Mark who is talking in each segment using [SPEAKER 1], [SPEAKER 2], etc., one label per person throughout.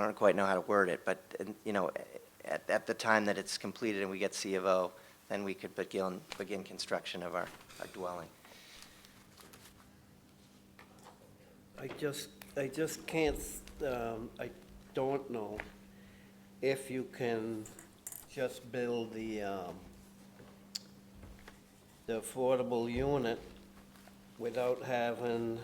[SPEAKER 1] I don't quite know how to word it, but, and, you know, at, at the time that it's completed and we get C of O, then we could begin, begin construction of our, our dwelling.
[SPEAKER 2] I just, I just can't, s- um, I don't know if you can just build the, um, the affordable unit without having,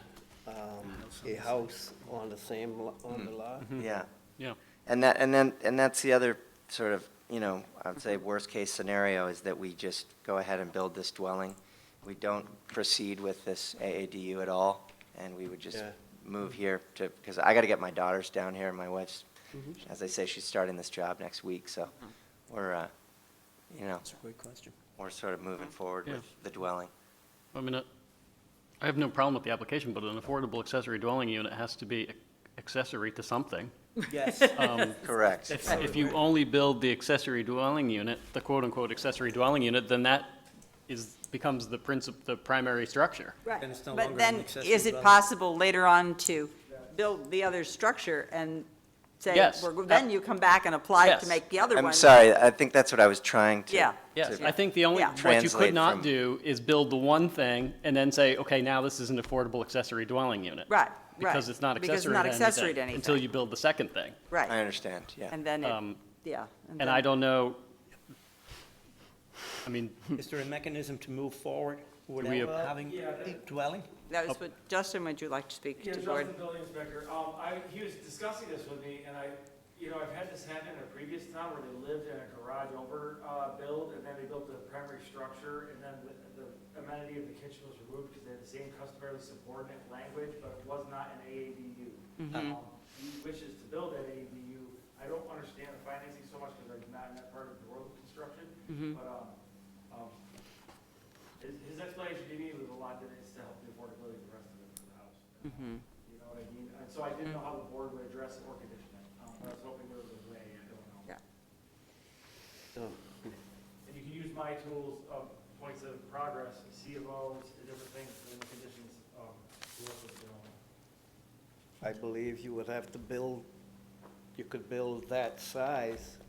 [SPEAKER 2] um, a house on the same, lo- on the lot.
[SPEAKER 1] Yeah.
[SPEAKER 3] Mm-hmm. Yeah.
[SPEAKER 1] And that, and then, and that's the other sort of, you know, I would say worst-case scenario is that we just go ahead and build this dwelling. We don't proceed with this AADU at all, and we would just
[SPEAKER 2] Yeah.
[SPEAKER 1] move here to, because I got to get my daughters down here, and my wife's,
[SPEAKER 3] Mm-hmm.
[SPEAKER 1] as I say, she's starting this job next week, so we're, uh, you know,
[SPEAKER 4] That's a great question.
[SPEAKER 1] we're sort of moving forward
[SPEAKER 3] Yeah.
[SPEAKER 1] with the dwelling.
[SPEAKER 3] I mean, uh, I have no problem with the application, but an affordable accessory dwelling unit has to be ac- accessory to something.
[SPEAKER 2] Yes.
[SPEAKER 3] Um,
[SPEAKER 1] Correct.
[SPEAKER 3] If if you only build the accessory dwelling unit, the quote-unquote accessory dwelling unit, then that is, becomes the princip, the primary structure.
[SPEAKER 5] Right.
[SPEAKER 4] Then it's no longer
[SPEAKER 5] But
[SPEAKER 4] an
[SPEAKER 5] then,
[SPEAKER 4] accessory
[SPEAKER 5] is it
[SPEAKER 4] dwelling.
[SPEAKER 5] possible later on to build the other structure and say,
[SPEAKER 3] Yes.
[SPEAKER 5] we're- then you come back and apply to
[SPEAKER 3] Yes.
[SPEAKER 5] make the other one?
[SPEAKER 1] I'm sorry, I think that's what I was trying to.
[SPEAKER 5] Yeah.
[SPEAKER 3] Yes,
[SPEAKER 1] to-
[SPEAKER 3] I think the only,
[SPEAKER 5] Yeah.
[SPEAKER 3] what you
[SPEAKER 1] Translate
[SPEAKER 3] could
[SPEAKER 1] from-
[SPEAKER 3] not do is build the one thing and then say, okay, now this is an affordable accessory dwelling unit.
[SPEAKER 5] Right, right.
[SPEAKER 3] Because it's not
[SPEAKER 5] Because it's
[SPEAKER 3] accessory
[SPEAKER 5] not
[SPEAKER 3] to
[SPEAKER 5] accessory to
[SPEAKER 3] anything until
[SPEAKER 5] anything.
[SPEAKER 3] you build the second thing.
[SPEAKER 1] I
[SPEAKER 5] Right,
[SPEAKER 1] understand, yeah.
[SPEAKER 5] and then, it-
[SPEAKER 3] Um,
[SPEAKER 5] yeah.
[SPEAKER 3] And I
[SPEAKER 5] then-
[SPEAKER 3] don't know, I mean,
[SPEAKER 4] Is there a mechanism to move forward
[SPEAKER 3] we
[SPEAKER 4] without
[SPEAKER 3] ap-
[SPEAKER 4] having a dwelling?
[SPEAKER 5] That was what, Justin, would you like to speak
[SPEAKER 6] Yeah,
[SPEAKER 5] to the
[SPEAKER 6] Justin,
[SPEAKER 5] board?
[SPEAKER 6] building inspector, um, I, he was discussing this with me, and I, you know, I've had this happen in a previous town where they lived in a garage over, uh, build, and then they built the primary structure, and then the, the amenity of the kitchen was removed because they had the same customarily subordinate language, but it was not an AADU. Um, He wishes to build an AADU, I don't understand the financing so much because I'm not in that part of the road construction, but, um, um, his, his explanation to me was a lot that is to help the affordability of the rest of it for the house.
[SPEAKER 5] Mm-hmm.
[SPEAKER 6] You know what I mean? And so I didn't know how the board would address it or condition it. Um, I was hoping there was a way, I don't know.
[SPEAKER 5] Yeah.
[SPEAKER 2] So,
[SPEAKER 6] And you can use my tools of points of progress, C of O's, the different things, and the conditions, um, to work with, you know.
[SPEAKER 2] I believe you would have to build, you could build that size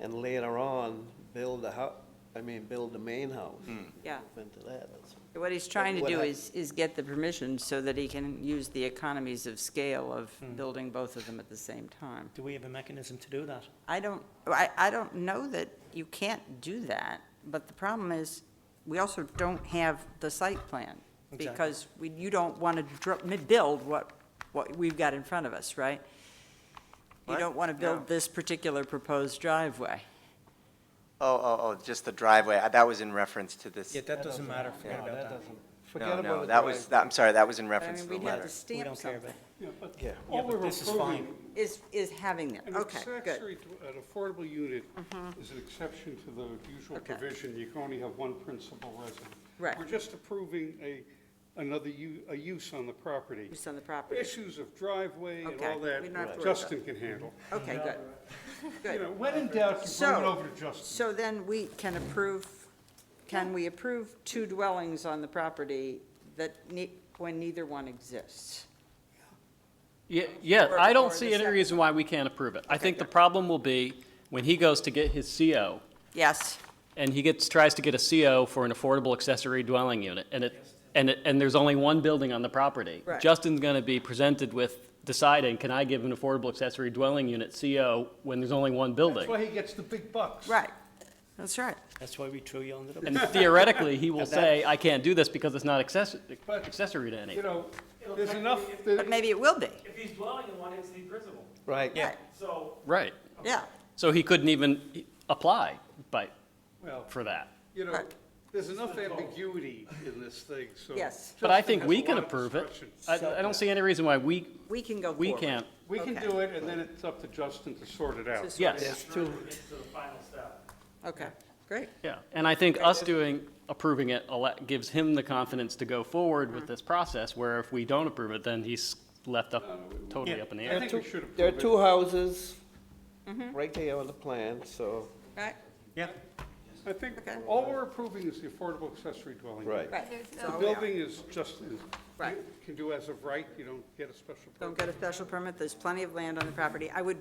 [SPEAKER 2] and later on, build a hou, I mean, build the main house.
[SPEAKER 5] Yeah.
[SPEAKER 2] Into that, that's
[SPEAKER 5] What he's trying to
[SPEAKER 2] What
[SPEAKER 5] do
[SPEAKER 2] I-
[SPEAKER 5] is, is get the permission so that he can use the economies of scale of
[SPEAKER 4] Hmm.
[SPEAKER 5] building both of them at the same time.
[SPEAKER 4] Do we have a mechanism to do that?
[SPEAKER 5] I don't, I, I don't know that you can't do that, but the problem is, we also don't have the site plan.
[SPEAKER 4] Exactly.
[SPEAKER 5] Because we, you don't want to dr- mi- build what, what we've got in front of us, right? You
[SPEAKER 1] What?
[SPEAKER 5] don't want to
[SPEAKER 1] No.
[SPEAKER 5] build this particular proposed driveway.
[SPEAKER 1] Oh, oh, oh, just the driveway, Uh, that was in reference to this.
[SPEAKER 4] Yeah, that doesn't matter, forget
[SPEAKER 2] No,
[SPEAKER 4] about
[SPEAKER 2] that
[SPEAKER 4] that.
[SPEAKER 2] doesn't, forget
[SPEAKER 1] No,
[SPEAKER 2] about
[SPEAKER 1] no,
[SPEAKER 2] the
[SPEAKER 1] that was,
[SPEAKER 2] driveway.
[SPEAKER 1] that- I'm sorry, that was in
[SPEAKER 5] I
[SPEAKER 1] reference
[SPEAKER 5] mean,
[SPEAKER 1] to the
[SPEAKER 5] we'd have
[SPEAKER 1] letter.
[SPEAKER 5] to
[SPEAKER 4] We
[SPEAKER 5] stamp
[SPEAKER 4] don't care
[SPEAKER 5] something.
[SPEAKER 4] about.
[SPEAKER 2] Yeah.
[SPEAKER 4] Yeah,
[SPEAKER 7] All
[SPEAKER 4] but
[SPEAKER 7] we're
[SPEAKER 4] this is fine.
[SPEAKER 7] approving,
[SPEAKER 5] Is, is having that,
[SPEAKER 7] an
[SPEAKER 5] okay, good. Mm-hmm.
[SPEAKER 7] accessory, to- an affordable unit is an exception to the usual
[SPEAKER 5] Okay.
[SPEAKER 7] provision, you can only have one principal resident.
[SPEAKER 5] Right.
[SPEAKER 7] We're just approving a, another, u- a use on the property.
[SPEAKER 5] Use on the property.
[SPEAKER 7] Issues of driveway and
[SPEAKER 5] Okay,
[SPEAKER 7] all
[SPEAKER 5] we don't have to worry
[SPEAKER 7] that,
[SPEAKER 5] about
[SPEAKER 7] Justin can handle.
[SPEAKER 5] Okay, good.
[SPEAKER 7] You
[SPEAKER 5] Good.
[SPEAKER 7] know, when in doubt, you bring
[SPEAKER 5] So-
[SPEAKER 7] it over to Justin.
[SPEAKER 5] So then we can approve, can we approve two dwellings on the property that, ne- when neither one exists?
[SPEAKER 3] Yeah, yeah,
[SPEAKER 5] Or-
[SPEAKER 3] I
[SPEAKER 5] or
[SPEAKER 3] don't
[SPEAKER 5] the
[SPEAKER 3] see any
[SPEAKER 5] second
[SPEAKER 3] reason why we can't approve it. I think the problem will be when he goes to get his CO,
[SPEAKER 5] Yes,
[SPEAKER 3] and he gets, tries to get a CO for an affordable accessory dwelling unit, and it, and it, and there's only one building on the property.
[SPEAKER 5] Right.
[SPEAKER 3] Justin's gonna be presented with deciding, can I give an affordable accessory dwelling unit CO when there's only one
[SPEAKER 7] That's
[SPEAKER 3] building?
[SPEAKER 7] why he gets the big bucks.
[SPEAKER 5] right, that's right.
[SPEAKER 4] That's why we threw you under the bus.
[SPEAKER 3] And theoretically, he will say, I can't do this because it's not access,
[SPEAKER 7] But-
[SPEAKER 3] accessory to
[SPEAKER 7] You
[SPEAKER 3] anything.
[SPEAKER 7] know, there's enough, that-
[SPEAKER 5] But maybe it will be.
[SPEAKER 6] If he's dwelling in one, it's the principal.
[SPEAKER 2] Right.
[SPEAKER 5] Yeah.
[SPEAKER 6] So
[SPEAKER 3] Right,
[SPEAKER 5] Yeah,
[SPEAKER 3] so he couldn't even apply by,
[SPEAKER 7] well,
[SPEAKER 3] for that.
[SPEAKER 7] you know,
[SPEAKER 5] Right.
[SPEAKER 7] there's enough ambiguity in this thing, so.
[SPEAKER 5] Yes.
[SPEAKER 3] But I
[SPEAKER 7] Justin
[SPEAKER 3] think
[SPEAKER 7] has
[SPEAKER 3] we
[SPEAKER 7] a
[SPEAKER 3] can
[SPEAKER 7] lot of
[SPEAKER 3] approve it.
[SPEAKER 7] discretion.
[SPEAKER 3] I, I don't see any reason why we,
[SPEAKER 5] we can go
[SPEAKER 3] we
[SPEAKER 5] forward.
[SPEAKER 3] can't.
[SPEAKER 7] We can
[SPEAKER 5] Okay.
[SPEAKER 7] do it, and then it's up to Justin to sort it out.
[SPEAKER 3] Yes,
[SPEAKER 6] sure it gets to the final step.
[SPEAKER 5] Okay, great.
[SPEAKER 3] yeah. And I think us doing, approving it ele- gives him the confidence to go forward with this process, where if we don't approve it, then he's left up, totally
[SPEAKER 4] Yeah.
[SPEAKER 3] up in the
[SPEAKER 7] I
[SPEAKER 3] air.
[SPEAKER 7] think we should approve it.
[SPEAKER 2] There are two houses right there on the plan, so,
[SPEAKER 5] Right,
[SPEAKER 4] Yeah,
[SPEAKER 7] I think
[SPEAKER 5] Okay.
[SPEAKER 7] all we're approving is the affordable accessory dwelling.
[SPEAKER 2] right.
[SPEAKER 5] right.
[SPEAKER 7] The
[SPEAKER 5] So-
[SPEAKER 7] building is just, is
[SPEAKER 5] Oh, Right.
[SPEAKER 7] you can do as of right, you don't get a special permit.
[SPEAKER 5] Don't get a special permit, there's plenty of land on the property. I would